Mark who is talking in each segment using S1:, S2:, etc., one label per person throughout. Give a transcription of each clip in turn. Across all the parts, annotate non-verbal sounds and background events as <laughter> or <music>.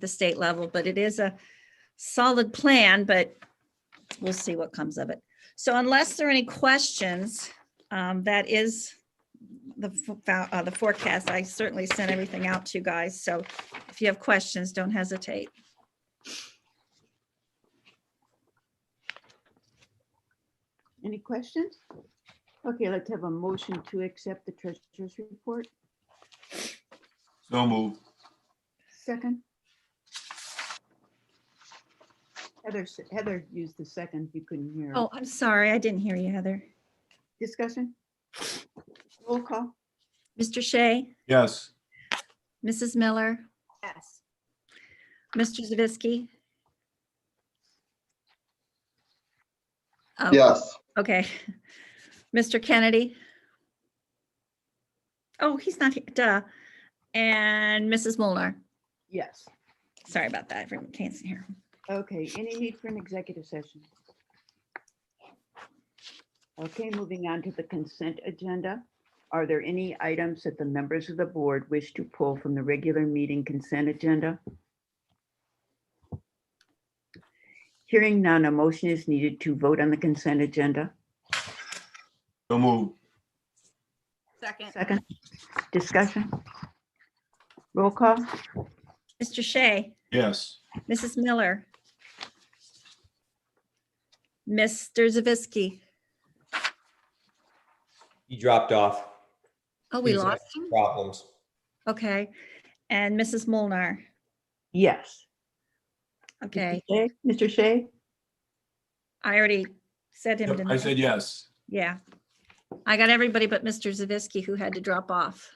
S1: the state level, but it is a solid plan, but we'll see what comes of it. So unless there are any questions, um, that is the, fo- fo- uh, the forecast. I certainly sent everything out to you guys, so if you have questions, don't hesitate.
S2: Any questions? Okay, let's have a motion to accept the treasurer's report.
S3: So moved.
S2: Second. Heather, s- Heather used the second. You couldn't hear.
S1: Oh, I'm sorry, I didn't hear you, Heather.
S2: Discussion? Roll call?
S1: Mr. Shea,
S3: Yes.
S1: Mrs. Miller,
S2: Yes.
S1: Mr. Zavisky? Oh,
S4: Yes,
S1: Okay. <laughs> Mr. Kennedy? Oh, he's not here, duh. And Mrs. Molnar.
S2: Yes.
S1: Sorry about that, everyone can't see here.
S2: Okay, any need for an executive session? Okay, moving on to the consent agenda. Are there any items that the members of the board wish to pull from the regular meeting consent agenda? Hearing none, a motion is needed to vote on the consent agenda.
S3: So moved.
S5: Second.
S2: Second, discussion? Roll call?
S1: Mr. Shea,
S3: Yes.
S1: Mrs. Miller. Mr. Zavisky.
S6: He dropped off.
S1: Oh, we
S6: He's
S1: lost him?
S6: Problems.
S1: Okay. And Mrs. Molnar.
S2: Yes.
S1: Okay,
S2: Mr. Shea? Mr. Shea?
S1: I already said him.
S3: Yep,
S1: didn't
S3: I said yes.
S1: Yeah. I got everybody but Mr. Zavisky who had to drop off.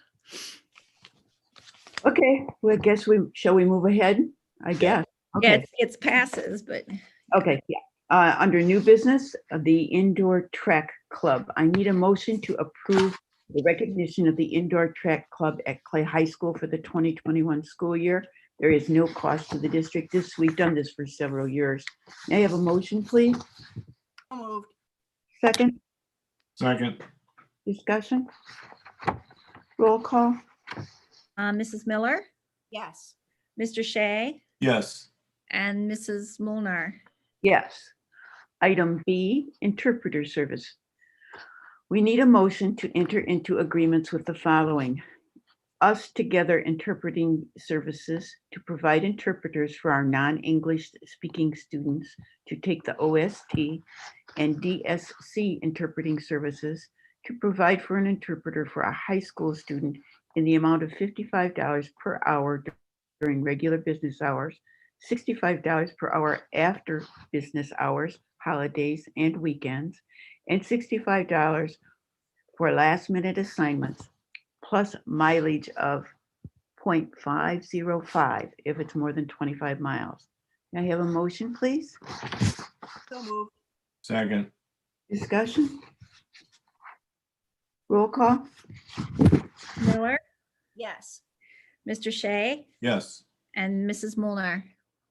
S2: Okay, well, I guess we, shall we move ahead? I guess.
S1: Yeah,
S2: Okay.
S1: it's- it's passes, but
S2: Okay, yeah. Uh, Under new business, uh, the indoor track club. I need a motion to approve the recognition of the indoor track club at Clay High School for the 2021 school year. There is no cost to the district. This, we've done this for several years. May I have a motion, please?
S5: So Moved.
S2: Second
S3: Second.
S2: discussion? Roll call?
S1: uh, Mrs. Miller,
S5: Yes.
S1: Mr. Shea,
S3: Yes.
S1: and Mrs. Molnar.
S2: Yes. Item B, interpreter service. We need a motion to enter into agreements with the following. Us Together Interpreting Services to provide interpreters for our non-English speaking students to take the OST and DSC interpreting services to provide for an interpreter for a high school student in the amount of $55 per hour during regular business hours sixty-five dollars per hour after business hours, holidays, and weekends, and sixty-five dollars for last-minute assignments, plus mileage of 0.505 if it's more than twenty-five miles. May I have a motion, please?
S5: So moved.
S3: Second.
S2: Discussion? Roll call?
S1: Miller,
S5: Yes.
S1: Mr. Shea,
S3: Yes.
S1: and Mrs. Molnar.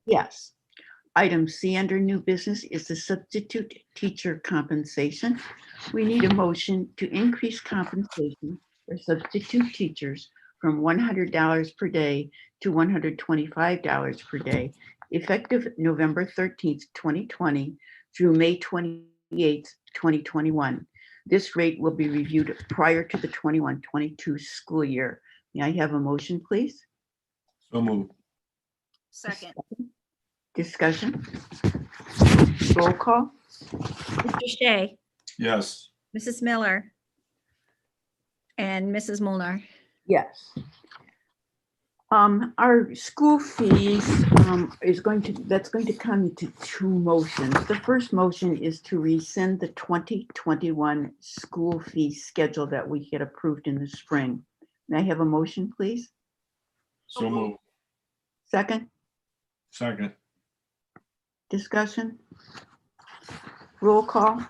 S2: Yes. Item C under new business is the substitute teacher compensation. We need a motion to increase compensation for substitute teachers from one hundred dollars per day to one hundred twenty-five dollars per day, effective November thirteenth, twenty twenty through May twenty-eighth, twenty twenty-one. This rate will be reviewed prior to the 21-22 school year. May I have a motion, please?
S3: So moved.
S5: Second.
S2: Discussion? Roll call?
S1: Mr. Shea,
S3: Yes.
S1: Mrs. Miller, and Mrs. Molnar.
S2: Yes. Um, our school fees, um, is going to, that's going to come to two motions. The first motion is to rescind the twenty twenty-one school fee schedule that we had approved in the spring. May I have a motion, please?
S3: So moved.
S2: Second,
S3: Second.
S2: discussion? Roll call?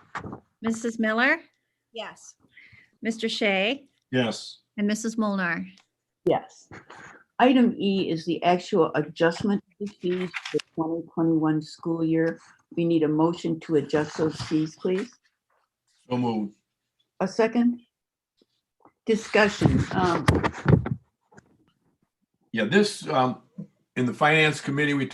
S1: Mrs. Miller,
S5: Yes.
S1: Mr. Shea,
S3: Yes.
S1: and Mrs. Molnar.
S2: Yes. Item E is the actual adjustment to the fees for twenty twenty-one school year. We need a motion to adjust those fees, please.
S3: So moved.
S2: A second? Discussion. um,
S3: Yeah, this, um, in the finance committee, we